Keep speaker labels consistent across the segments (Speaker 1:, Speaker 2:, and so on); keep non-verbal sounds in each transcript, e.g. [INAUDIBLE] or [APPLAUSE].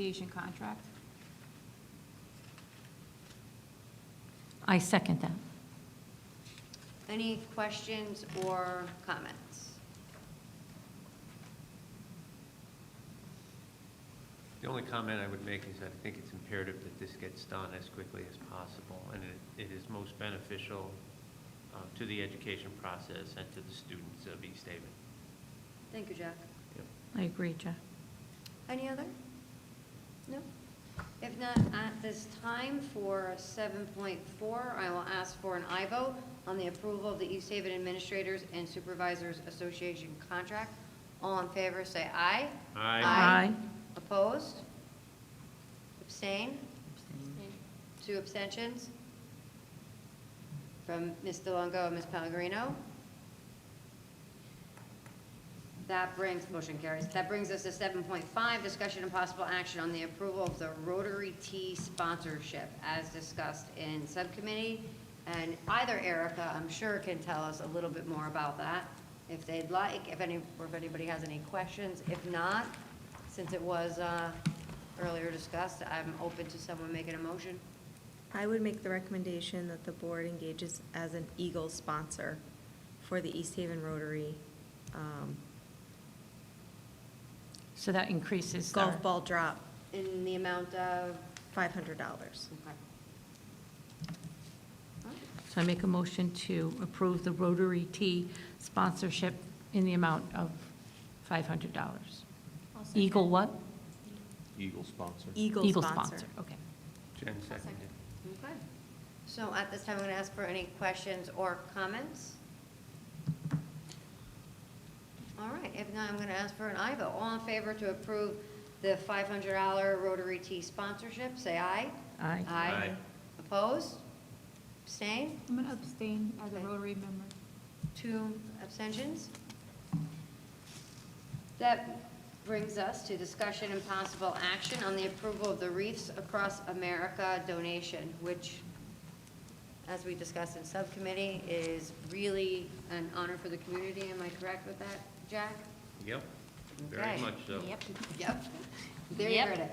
Speaker 1: Association contract.
Speaker 2: I second that.
Speaker 3: Any questions or comments?
Speaker 4: The only comment I would make is I think it's imperative that this gets done as quickly as possible, and it, it is most beneficial um, to the education process and to the students of East Haven.
Speaker 3: Thank you, Jack.
Speaker 2: I agree, Jeff.
Speaker 3: Any other? No? If not, at this time for 7.4, I will ask for an aye vote on the approval of the East Haven Administrators and Supervisors Association contract. All in favor, say aye.
Speaker 4: Aye.
Speaker 2: Aye.
Speaker 3: Opposed? Abstain? Two abstentions? From Ms. DeLongo and Ms. Pellegrino. That brings, motion carries. That brings us to 7.5, discussion and possible action on the approval of the Rotary T sponsorship as discussed in subcommittee. And either Erica, I'm sure, can tell us a little bit more about that if they'd like, if any, or if anybody has any questions. If not, since it was uh, earlier discussed, I'm open to someone making a motion.
Speaker 5: I would make the recommendation that the board engages as an Eagle sponsor for the East Haven Rotary um,
Speaker 2: So that increases our...
Speaker 5: golf ball drop,
Speaker 3: In the amount of,
Speaker 5: five hundred dollars.
Speaker 3: okay.
Speaker 2: So I make a motion to approve the Rotary T sponsorship in the amount of $500. Eagle what?
Speaker 6: Eagle sponsor.
Speaker 5: Eagle sponsor.
Speaker 2: Okay.
Speaker 4: Jen seconded.
Speaker 3: Okay. So at this time, I'm going to ask for any questions or comments. All right, if not, I'm going to ask for an aye vote. All in favor to approve the $500 Rotary T sponsorship, say aye.
Speaker 2: Aye.
Speaker 3: Uh,
Speaker 4: Aye.
Speaker 3: Opposed? Abstain?
Speaker 1: I'm going to abstain as a
Speaker 3: Okay.
Speaker 1: Rotary member.
Speaker 3: Two abstentions. That brings us to discussion and possible action on the approval of the Reefs Across America donation, which, as we discussed in subcommittee, is really an honor for the community. Am I correct with that, Jack?
Speaker 4: Yep, very
Speaker 3: Okay.
Speaker 4: much so.
Speaker 3: Yep. There you heard it.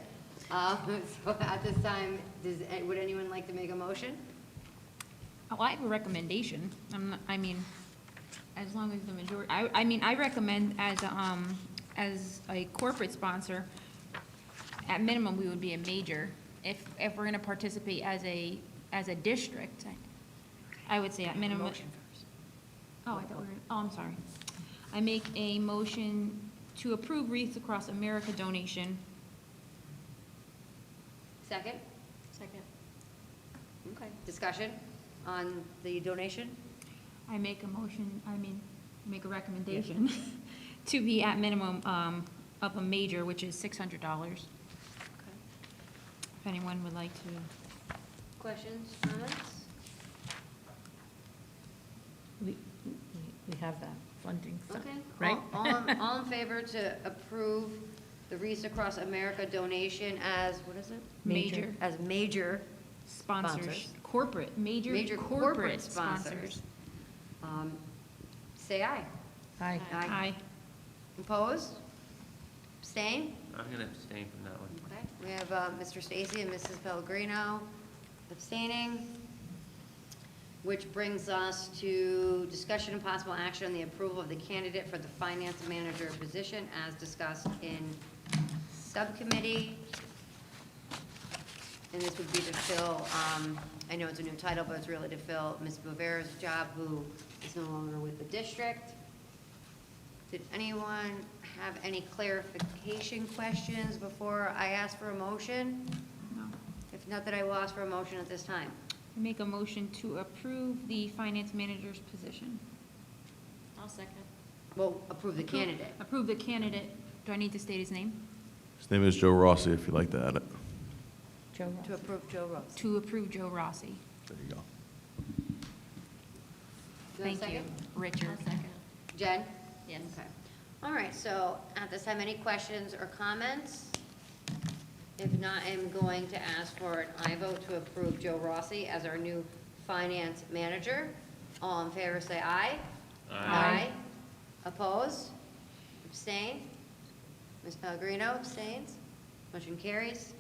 Speaker 3: Um, [LAUGHS] So at this time, does, would anyone like to make a motion?
Speaker 7: Oh, I have a recommendation. I'm, not- I mean, as long as the majority, I, I mean, I recommend as, a, um, as a corporate sponsor, at minimum, we would be a major. If, if we're gonna participate as a, as a district, I- I would say at minimum.
Speaker 3: Motion first.
Speaker 7: Oh, I thought we were, oh, I'm sorry. I make a motion to approve Wreaths Across America donation.
Speaker 3: Second? Second. Okay, discussion on the donation?
Speaker 7: I make a motion, I mean, make a recommendation [LAUGHS] to be at minimum, um, of a major, which is six hundred dollars. If anyone would like to,
Speaker 3: Questions, comments?
Speaker 2: We we have that funding, so-
Speaker 3: Okay.
Speaker 2: right?
Speaker 3: All- All,
Speaker 2: [LAUGHS]
Speaker 3: in- all in favor to approve the Reese Across America donation as, what is it?
Speaker 7: Major. Major.
Speaker 3: As major,
Speaker 7: sponsors,
Speaker 3: Sponsors.
Speaker 7: corporate,
Speaker 3: major
Speaker 7: major
Speaker 3: corporate
Speaker 7: sponsors.
Speaker 3: sponsors. Um, Say aye.
Speaker 2: Aye.
Speaker 3: Aye.
Speaker 7: Aye.
Speaker 3: Opposed? Abstain?
Speaker 4: I'm going to abstain from that one.
Speaker 3: Okay, we have uh, Mr. Stacy and Mrs. Pellegrino abstaining, which brings us to discussion and possible action on the approval of the candidate for the finance manager position as discussed in subcommittee. And this would be to fill, um, I know it's a new title, but it's really to fill Ms. Rivera's job, who is no longer with the district. Did anyone have any clarification questions before I ask for a motion?
Speaker 7: No.
Speaker 3: If not, that I will ask for a motion at this time.
Speaker 7: I Make a motion to approve the finance manager's position.
Speaker 3: I'll second. Well, approve the
Speaker 7: Approve-
Speaker 3: candidate.
Speaker 7: Approve the candidate. Do I need to state his name?
Speaker 6: His name is Joe Rossi, if you'd like to add it.
Speaker 2: Joe
Speaker 3: To
Speaker 2: Ross.
Speaker 3: approve Joe Rose.
Speaker 7: To approve Joe Rossi.
Speaker 6: There you go.
Speaker 3: Do I have a
Speaker 7: Thank you,
Speaker 3: second?
Speaker 7: Richard.
Speaker 3: Jen?
Speaker 7: Yes.
Speaker 3: Okay. All right, so at this time, any questions or comments? If not, I'm going to ask for an I vote to approve Joe Rossi as our new finance manager. All in favor, say aye.
Speaker 4: Aye.
Speaker 3: Opposed? Abstain? Ms. Pellegrino abstains? Motion carries.